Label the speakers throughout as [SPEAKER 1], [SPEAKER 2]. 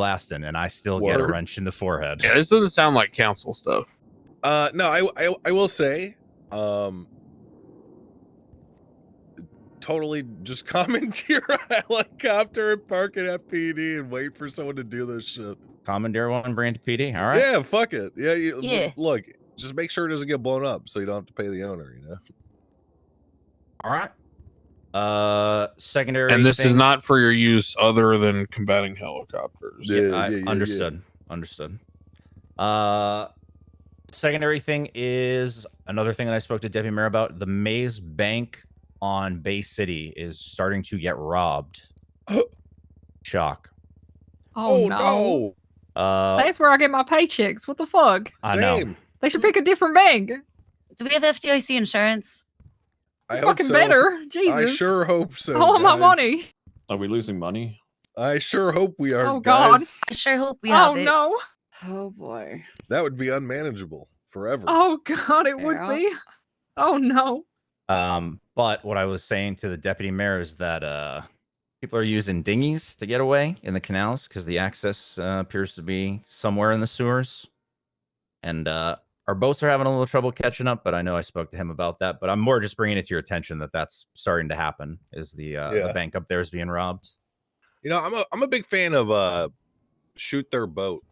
[SPEAKER 1] blasting, and I still get a
[SPEAKER 2] Word.
[SPEAKER 1] wrench in the forehead.
[SPEAKER 2] Yeah, this doesn't sound like council stuff.
[SPEAKER 3] Uh, no, I, I I will say, um, totally just commandeer a helicopter and park it at PD and wait for someone to do this shit.
[SPEAKER 1] Commandeer one brand PD. All right.
[SPEAKER 3] Yeah, fuck it. Yeah, you, l-
[SPEAKER 4] Yeah.
[SPEAKER 3] Look, just make sure it doesn't get blown up, so you don't have to pay the owner. You know.
[SPEAKER 1] All right. Uh, secondary.
[SPEAKER 2] And this is
[SPEAKER 1] thing-
[SPEAKER 2] not for your use other than combating helicopters.
[SPEAKER 1] Yeah,
[SPEAKER 3] Yeah,
[SPEAKER 1] I
[SPEAKER 3] yeah, yeah, yeah.
[SPEAKER 1] understood. Understood. Uh, secondary thing is another thing that I spoke to Deputy Mayor about. The Maze Bank on Bay City is starting to get robbed. Shock.
[SPEAKER 4] Oh, no.
[SPEAKER 1] Uh,
[SPEAKER 4] That's where I get my paychecks. What the fuck?
[SPEAKER 1] I know.
[SPEAKER 3] Same.
[SPEAKER 4] They should pick a different bank.
[SPEAKER 5] Do we have FDIC insurance?
[SPEAKER 3] I hope
[SPEAKER 4] Fucking
[SPEAKER 3] so.
[SPEAKER 4] better. Jesus.
[SPEAKER 3] I sure hope so.
[SPEAKER 4] I want my
[SPEAKER 3] guys.
[SPEAKER 4] money.
[SPEAKER 6] Are we losing money?
[SPEAKER 3] I sure hope we are.
[SPEAKER 4] Oh, God.
[SPEAKER 3] guys.
[SPEAKER 5] I sure hope we have
[SPEAKER 4] oh
[SPEAKER 5] it.
[SPEAKER 4] no.
[SPEAKER 7] Oh boy.
[SPEAKER 3] That would be unmanageable forever.
[SPEAKER 4] Oh god, it would
[SPEAKER 7] Girl.
[SPEAKER 4] be. Oh no.
[SPEAKER 1] Um, but what I was saying to the deputy mayor is that uh, people are using dinghies to get away in the canals because the access uh, appears to be somewhere in the sewers, and uh, our boats are having a little trouble catching up. But I know I spoke to him about that. But I'm more just bringing it to your attention that that's starting to happen. Is the uh,
[SPEAKER 3] Yeah.
[SPEAKER 1] the bank up there is being robbed?
[SPEAKER 3] You know, I'm a I'm a big fan of uh, shoot their boat.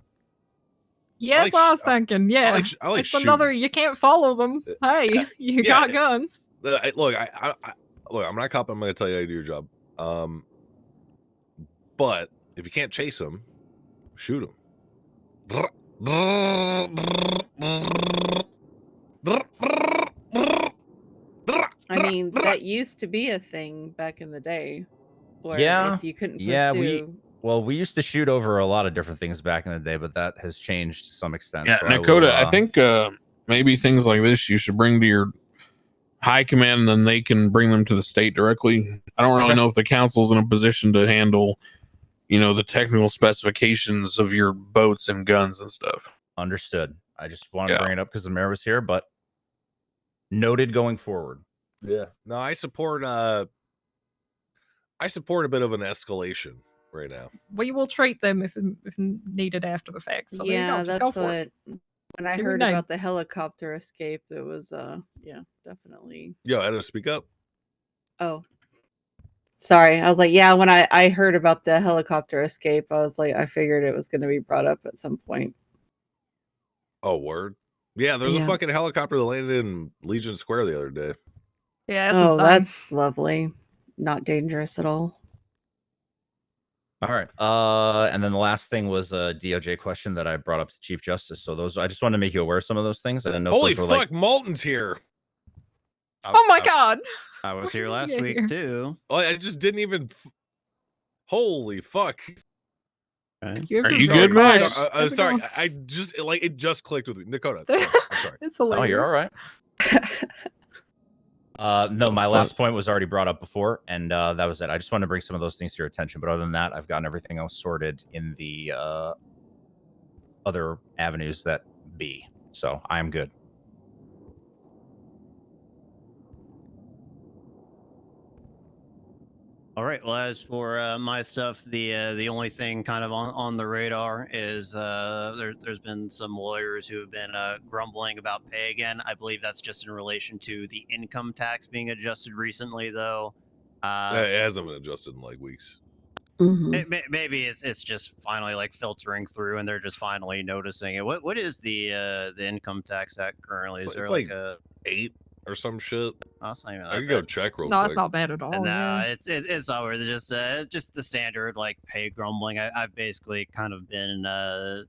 [SPEAKER 3] like
[SPEAKER 4] Yeah, that's what
[SPEAKER 3] sh-
[SPEAKER 4] I was thinking. Yeah.
[SPEAKER 3] I like sh- I like
[SPEAKER 4] it's
[SPEAKER 3] shooting.
[SPEAKER 4] another you can't follow them. Hey, you
[SPEAKER 3] Uh, yeah,
[SPEAKER 4] got
[SPEAKER 3] it-
[SPEAKER 4] guns.
[SPEAKER 3] Uh, I- look, I, I, I look. I'm not a cop. I'm going to tell you how to do your job. Um, but if you can't chase them, shoot them.
[SPEAKER 7] I mean, that used to be a thing back in the day. Where
[SPEAKER 1] Yeah.
[SPEAKER 7] If you couldn't pursue.
[SPEAKER 1] Yeah, we- Well, we used to shoot over a lot of different things back in the day, but that has changed to some extent.
[SPEAKER 2] Yeah,
[SPEAKER 1] so I will,
[SPEAKER 2] Nakota, I
[SPEAKER 1] uh,
[SPEAKER 2] think uh, maybe things like this you should bring to your high command and then they can bring them to the state directly. I don't really
[SPEAKER 1] Okay.
[SPEAKER 2] know if the council's in a position to handle, you know, the technical specifications of your boats and guns and stuff.
[SPEAKER 1] Understood. I just wanted to
[SPEAKER 2] Yeah.
[SPEAKER 1] bring it up because the mayor was here, but noted going forward.
[SPEAKER 3] Yeah. No, I support. Uh, I support a bit of an escalation right now.
[SPEAKER 4] We will treat them if if needed after the fact. So there you go.
[SPEAKER 7] yeah,
[SPEAKER 4] Just go
[SPEAKER 7] that's
[SPEAKER 4] for it.
[SPEAKER 7] what. mm, When I
[SPEAKER 4] Give me
[SPEAKER 7] heard
[SPEAKER 4] nine.
[SPEAKER 7] about the helicopter escape, it was uh, yeah, definitely.
[SPEAKER 3] Yo, Edo, speak up.
[SPEAKER 7] Oh, sorry. I was like, yeah. When I I heard about the helicopter escape, I was like, I figured it was going to be brought up at some point.
[SPEAKER 3] Oh, word. Yeah, there's a
[SPEAKER 7] Yeah.
[SPEAKER 3] fucking helicopter that landed in Legion Square the other day.
[SPEAKER 4] Yeah, that's
[SPEAKER 7] oh,
[SPEAKER 4] insane.
[SPEAKER 7] that's lovely. Not dangerous at all.
[SPEAKER 1] All right. Uh, and then the last thing was a DOJ question that I brought up to Chief Justice. So those, I just wanted to make you aware of some of those things. I didn't know. if
[SPEAKER 3] Holy
[SPEAKER 1] those were,
[SPEAKER 3] fuck,
[SPEAKER 1] like-
[SPEAKER 3] Malton's here.
[SPEAKER 8] I-
[SPEAKER 4] Oh
[SPEAKER 3] Uh,
[SPEAKER 4] my
[SPEAKER 8] I-
[SPEAKER 4] god.
[SPEAKER 8] I was here
[SPEAKER 4] Why are
[SPEAKER 8] last
[SPEAKER 4] you
[SPEAKER 8] week
[SPEAKER 4] here?
[SPEAKER 8] too.
[SPEAKER 3] Oh, I just didn't even. f- Holy fuck.
[SPEAKER 8] Right?
[SPEAKER 4] Give
[SPEAKER 2] Are
[SPEAKER 4] him
[SPEAKER 2] you
[SPEAKER 4] some-
[SPEAKER 2] good,
[SPEAKER 3] I'm
[SPEAKER 2] Max?
[SPEAKER 3] so- I, am
[SPEAKER 4] How's it
[SPEAKER 3] Uh, sorry.
[SPEAKER 4] going?
[SPEAKER 3] I I just it, like it just clicked with me. Dakota, I'm sorry. I'm sorry.
[SPEAKER 4] It's
[SPEAKER 1] oh,
[SPEAKER 4] hilarious.
[SPEAKER 1] you're all right. Uh, no, my
[SPEAKER 6] So-
[SPEAKER 1] last point was already brought up before, and uh, that was it. I just wanted to bring some of those things to your attention. But other than that, I've gotten everything else sorted in the uh, other avenues that be. So I am good.
[SPEAKER 8] All right. Well, as for uh, my stuff, the uh, the only thing kind of on, on the radar is uh, there, there's been some lawyers who have been uh, grumbling about pay again. I believe that's just in relation to the income tax being adjusted recently, though. Uh,
[SPEAKER 3] Uh, it hasn't been adjusted in like weeks.
[SPEAKER 7] Mhm.
[SPEAKER 8] May- may- Maybe it's, it's just finally like filtering through, and they're just finally noticing it. What what is the uh, the income tax act currently? Is
[SPEAKER 3] It's like-
[SPEAKER 8] there
[SPEAKER 3] it's
[SPEAKER 8] like,
[SPEAKER 3] like-
[SPEAKER 8] a?
[SPEAKER 3] Eight or some shit.
[SPEAKER 8] Oh, it's not even
[SPEAKER 3] I
[SPEAKER 8] that
[SPEAKER 3] could go
[SPEAKER 8] bad.
[SPEAKER 3] check real
[SPEAKER 4] No,
[SPEAKER 3] quick. uh,
[SPEAKER 4] it's not bad at all.
[SPEAKER 8] no,
[SPEAKER 4] yeah.
[SPEAKER 8] it's, it's it's over. It's just uh, it's just the standard like pay grumbling. I, I've basically kind of been uh,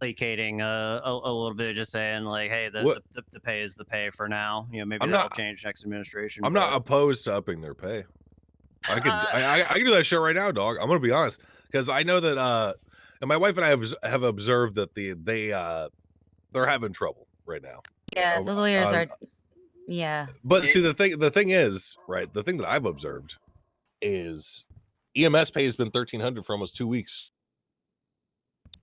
[SPEAKER 8] placating uh, a, a little bit, just saying like, hey, the, the,
[SPEAKER 3] What-
[SPEAKER 8] the, the pay is the pay for now. You know, maybe
[SPEAKER 3] I'm
[SPEAKER 8] that'll
[SPEAKER 3] not-
[SPEAKER 8] change next administration.
[SPEAKER 3] I'm not
[SPEAKER 8] but-
[SPEAKER 3] opposed to upping their pay. I could
[SPEAKER 8] Uh,
[SPEAKER 3] I, I, I can do that shit right now, dog. I'm gonna be honest because I know that uh, and my wife and I have have observed that the they uh they're having trouble right now.
[SPEAKER 5] Yeah,
[SPEAKER 3] Over-
[SPEAKER 5] the lawyers
[SPEAKER 3] on-
[SPEAKER 5] are. Yeah.
[SPEAKER 3] But
[SPEAKER 8] It-
[SPEAKER 3] see, the thing the thing is, right? The thing that I've observed is EMS pay has been thirteen hundred for almost two weeks.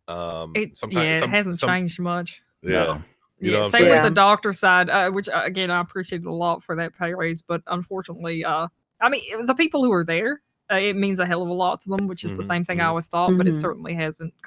[SPEAKER 3] Um,
[SPEAKER 4] It,
[SPEAKER 3] someti-
[SPEAKER 4] yeah,
[SPEAKER 3] some-
[SPEAKER 4] it hasn't
[SPEAKER 3] some-
[SPEAKER 4] changed much.
[SPEAKER 3] Yeah,
[SPEAKER 1] No.
[SPEAKER 3] You know
[SPEAKER 4] yeah,
[SPEAKER 3] what I'm
[SPEAKER 4] same with the
[SPEAKER 7] saying?
[SPEAKER 4] doctor side, uh, which uh, again I appreciated a lot for that pay raise, but unfortunately, uh, I mean the people who are there, uh, it means a hell of a lot to them, which is the
[SPEAKER 2] Mhm,
[SPEAKER 3] Mm-hmm,
[SPEAKER 4] same thing I always thought, but it certainly hasn't